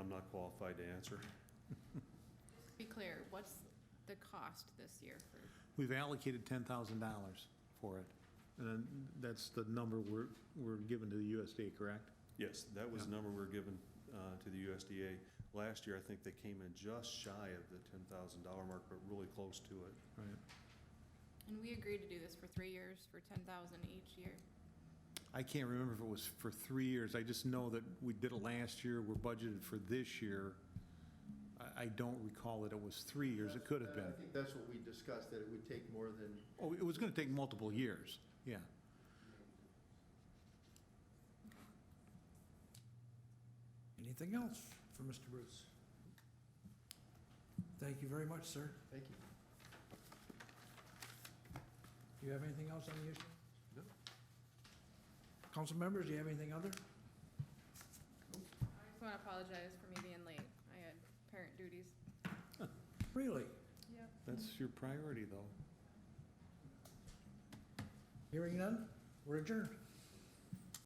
I'm not qualified to answer. Be clear, what's the cost this year for, We've allocated $10,000 for it. And then that's the number we're, we're given to the USDA, correct? Yes, that was the Yeah. number we were given uh, to the USDA. Last year, I think they came in just shy of the $10,000 mark, but really close to it. Right. and we agreed to do this for three years for ten thousand each year. I can't remember if it was for three years. I just know that we did it last year, we're budgeted for this year. I, I don't recall that it was three years, it could have I been. think that's what we discussed, that it would take more than, Oh, it was going to take multiple years, yeah. Anything else for Mr. Bruce? Thank you very much, sir. thank you. Do you have anything else on the issue? No. Council members, do you have anything other? I just wanna apologize for me being late, I had parent duties. Really? Yep. That's your priority, though. Hearing none, we're adjourned.